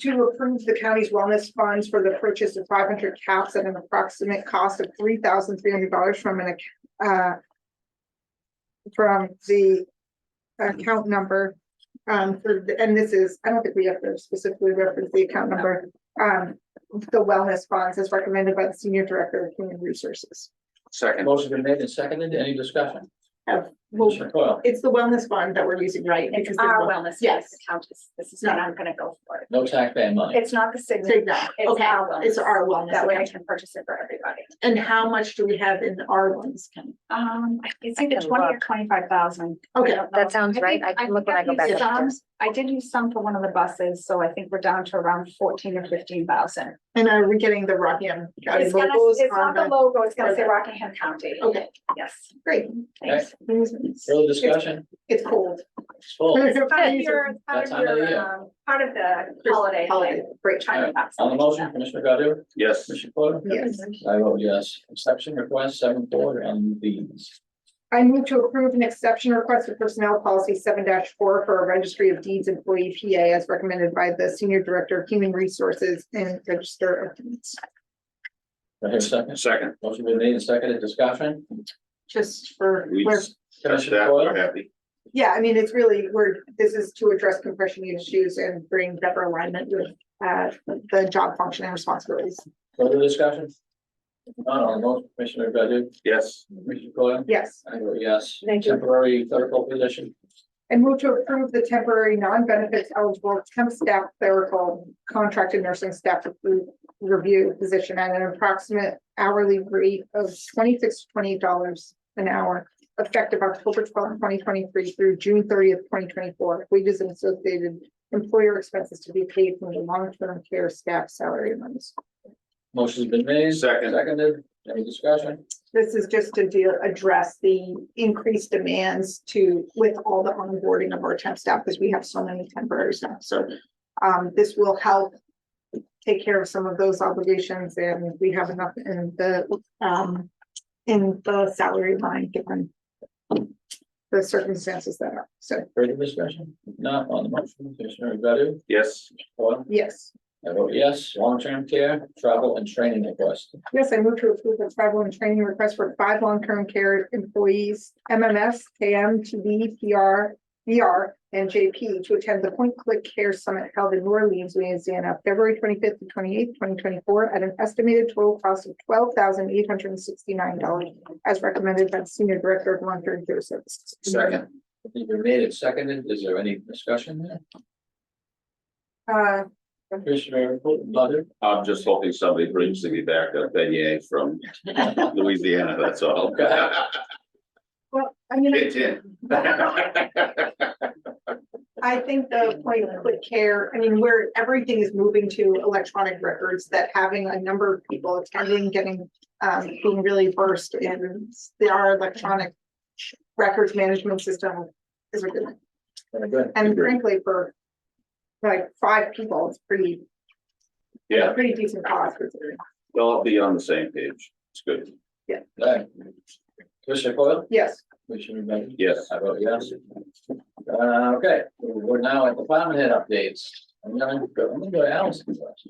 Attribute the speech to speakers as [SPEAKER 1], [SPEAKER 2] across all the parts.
[SPEAKER 1] to approve the county's wellness funds for the purchase of five hundred caps at an approximate cost of three thousand three hundred dollars from an, ac- uh, from the account number, um, for, the- and this is, I don't think we have to specifically reference the account number, um, the wellness funds as recommended by the senior director of human resources.
[SPEAKER 2] Second,
[SPEAKER 3] Motion been made and seconded. Any discussion?
[SPEAKER 1] Well,
[SPEAKER 3] Commissioner Coyle?
[SPEAKER 1] it's the wellness fund that we're using.
[SPEAKER 4] Right,
[SPEAKER 1] Because
[SPEAKER 4] it's
[SPEAKER 1] they
[SPEAKER 4] our
[SPEAKER 1] want-
[SPEAKER 4] wellness.
[SPEAKER 1] Yes.
[SPEAKER 4] Account is, this is not, I'm gonna go for it.
[SPEAKER 3] No taxpayer money.
[SPEAKER 4] It's not the signature.
[SPEAKER 1] Cigna.
[SPEAKER 4] It's
[SPEAKER 1] Okay,
[SPEAKER 4] our wellness.
[SPEAKER 1] it's our wellness.
[SPEAKER 4] That way I
[SPEAKER 1] account.
[SPEAKER 4] can purchase it for everybody.
[SPEAKER 1] And how much do we have in our ones? Can-
[SPEAKER 4] Um, I- it's
[SPEAKER 5] I
[SPEAKER 4] either
[SPEAKER 5] can
[SPEAKER 4] twenty or
[SPEAKER 5] look.
[SPEAKER 4] twenty-five thousand.
[SPEAKER 1] Okay,
[SPEAKER 5] that sounds right. I can look when I go back upstairs.
[SPEAKER 4] I did use some for one of the buses, so I think we're down to around fourteen or fifteen thousand.
[SPEAKER 1] And are we getting the Rockingham County
[SPEAKER 4] It's gonna,
[SPEAKER 1] locals
[SPEAKER 4] it's
[SPEAKER 1] on
[SPEAKER 4] not the
[SPEAKER 1] the?
[SPEAKER 4] logo, it's gonna say Rockingham County.
[SPEAKER 1] Okay,
[SPEAKER 4] Yes,
[SPEAKER 1] great.
[SPEAKER 4] thanks.
[SPEAKER 3] Further discussion?
[SPEAKER 1] It's cold.
[SPEAKER 3] It's full.
[SPEAKER 1] It's
[SPEAKER 4] Part of
[SPEAKER 1] amazing.
[SPEAKER 4] your, part
[SPEAKER 3] That
[SPEAKER 4] of
[SPEAKER 3] time of the
[SPEAKER 4] your,
[SPEAKER 3] year.
[SPEAKER 4] um, part of the
[SPEAKER 1] Christmas
[SPEAKER 4] holiday.
[SPEAKER 1] Holiday, great.
[SPEAKER 4] China box.
[SPEAKER 5] Hmm.
[SPEAKER 3] On the motion, Commissioner Godu?
[SPEAKER 2] yes,
[SPEAKER 3] Commissioner Coyle?
[SPEAKER 1] Yes.
[SPEAKER 3] I vote yes. Exception request seven four on these.
[SPEAKER 1] I move to approve an exception request for personnel policy seven four for a registry of deeds employee PA as recommended by the senior director of human resources and register of deeds.
[SPEAKER 3] Do I hear a second?
[SPEAKER 2] second.
[SPEAKER 3] Motion been made and seconded. Discussion?
[SPEAKER 1] Just for,
[SPEAKER 2] We
[SPEAKER 1] where-
[SPEAKER 2] discussed
[SPEAKER 3] Commissioner
[SPEAKER 2] that, we're
[SPEAKER 3] Coyle?
[SPEAKER 2] happy.
[SPEAKER 1] yeah, I mean, it's really, we're, this is to address compression issues and bring better alignment with uh the job function and responsibilities.
[SPEAKER 3] Further discussion? None on the motion, Commissioner Godu?
[SPEAKER 2] Yes,
[SPEAKER 3] Commissioner Coyle?
[SPEAKER 1] Yes.
[SPEAKER 3] I vote yes.
[SPEAKER 5] Thank you.
[SPEAKER 3] Temporary clerical position.
[SPEAKER 1] And move to approve the temporary non-benefits eligible temp staff clerical contracted nursing staff re- review position at an approximate hourly rate of twenty-six, twenty dollars an hour effective October twelfth, twenty twenty-three through June thirtieth, twenty twenty-four. Wages and associated employer expenses to be paid from the long-term care staff salary amounts.
[SPEAKER 3] Motion's been made.
[SPEAKER 2] Second.
[SPEAKER 3] Seconded. Any discussion?
[SPEAKER 1] This is just to deal, address the increased demands to, with all the onboarding of our temp staff, because we have so many temporary staff, so. Um, this will help take care of some of those obligations, and we have enough in the, um, in the salary line, given. The circumstances that are, so,
[SPEAKER 3] Further discussion? Not on the motion, Commissioner Godu?
[SPEAKER 2] yes,
[SPEAKER 3] Coyle?
[SPEAKER 1] yes,
[SPEAKER 3] I vote yes. Long-term care, travel and training request.
[SPEAKER 1] yes, I move to approve the travel and training request for five long-term care employees, MMS, KM, TB, PR, VR and JP to attend the Point Click Care Summit held in New Orleans, Louisiana, February twenty-fifth to twenty-eighth, twenty twenty-four, at an estimated total cost of twelve thousand eight hundred and sixty-nine dollars, as recommended by the Senior Director of Long-Term Care Services.
[SPEAKER 3] Second. It's been made and seconded. Is there any discussion there?
[SPEAKER 1] Uh,
[SPEAKER 3] Commissioner Godu?
[SPEAKER 2] I'm just hoping somebody brings me back a beignet from Louisiana, that's all.
[SPEAKER 3] Okay.
[SPEAKER 1] well, I mean, I-
[SPEAKER 2] It's in.
[SPEAKER 1] I think the point of quick care, I mean, where everything is moving to electronic records, that having a number of people attending, getting, um, being really versed in the- our electronic records management system is a good, thing.
[SPEAKER 3] Very good.
[SPEAKER 1] and
[SPEAKER 2] Agreed.
[SPEAKER 1] frankly, for like five people, it's pretty,
[SPEAKER 2] Yeah,
[SPEAKER 1] pretty decent cost. considering.
[SPEAKER 2] they'll all be on the same page. It's good.
[SPEAKER 3] Okay. Commissioner Coyle?
[SPEAKER 1] Yes,
[SPEAKER 3] Commissioner Godu?
[SPEAKER 2] Yes.
[SPEAKER 3] I vote yes. Uh, okay, we're now at department head updates. I'm gonna go, I'm gonna go to Allison. first.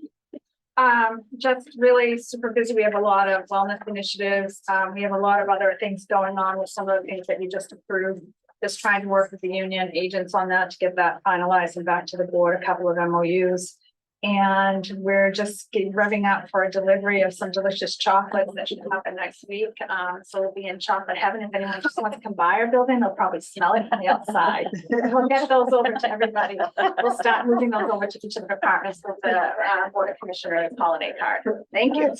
[SPEAKER 4] Um, just really super busy. We have a lot of wellness initiatives. Um, we have a lot of other things going on with some of the things that you just approved. Just trying to work with the union agents on that to get that finalized and back to the board, a couple of MOUs. And we're just getting revving up for a delivery of some delicious chocolates that should happen next week. Um, so we'll be in chocolate heaven. If anyone just wants to come by our building, they'll probably smell it from the outside. We'll get those over to everybody. We'll start moving those over to each of the departments with the uh, Board of Commissioners holiday card. Thank you.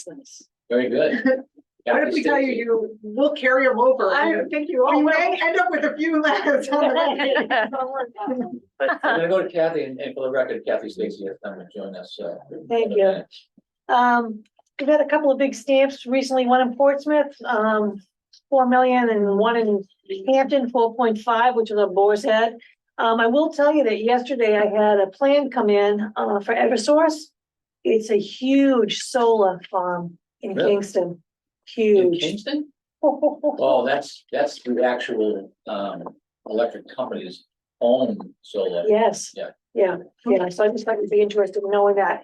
[SPEAKER 3] Very good.
[SPEAKER 1] what if we tell you, you, we'll carry them over?
[SPEAKER 4] I don't think you all
[SPEAKER 1] We
[SPEAKER 4] will.
[SPEAKER 1] may end up with a few less on the record.
[SPEAKER 3] I'm gonna go to Kathy and, and for the record, Kathy Stacy has come and joined us, uh, so.
[SPEAKER 6] Thank you. Um, we've had a couple of big stamps recently, one in Portsmouth, um, four million and one in Hampton, four point five, which is a boar's head. Um, I will tell you that yesterday I had a plan come in, uh, for Eversource. It's a huge solar farm in
[SPEAKER 3] Really?
[SPEAKER 6] Kingston,
[SPEAKER 3] In
[SPEAKER 6] huge.
[SPEAKER 3] Kingston? Oh, that's, that's the actual, um, electric company's own solar.
[SPEAKER 6] Yes.
[SPEAKER 3] Yeah.
[SPEAKER 6] Yeah, yeah, so I just thought it'd be interesting knowing that.